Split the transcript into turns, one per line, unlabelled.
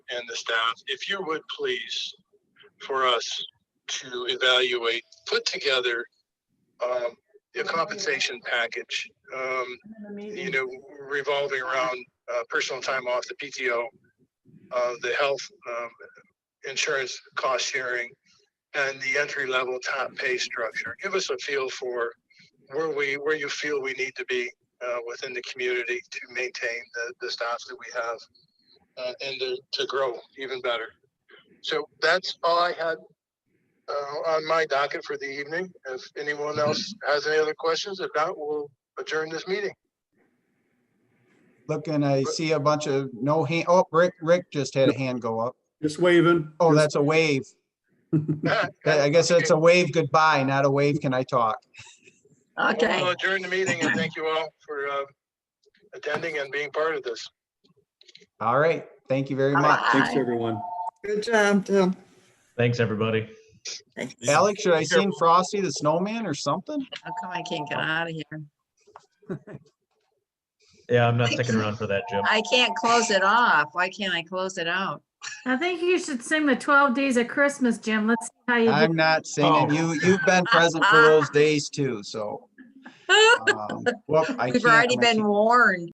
and the staff, if you would please, for us to evaluate, put together um, a compensation package, um, you know, revolving around uh, personal time off, the PTO, uh, the health um, insurance cost sharing, and the entry level top pay structure. Give us a feel for where we, where you feel we need to be uh, within the community to maintain the, the staff that we have uh, and to, to grow even better. So that's all I had uh, on my docket for the evening. If anyone else has any other questions, if not, we'll adjourn this meeting.
Look, and I see a bunch of no hand, oh, Rick, Rick just had a hand go up.
Just waving.
Oh, that's a wave. I I guess that's a wave goodbye, not a wave can I talk.
We'll
Okay,
adjourn the meeting and thank you all for uh, attending and being part of this.
All right, thank you very much.
Thanks, everyone.
Good job, Tim.
Thanks, everybody.
thanks. How
Alex, should I sing Frosty the Snowman or something?
come I can't get out of here?
Yeah, I'm not sticking around for that, Jim.
I can't close it off. Why can't I close it out?
I think you should sing the 12 Days of Christmas, Jim. Let's see how you do.
I'm not singing. You, you've been present for those days too, so. um, whoop, I
We've
can't-
already
I
been warned.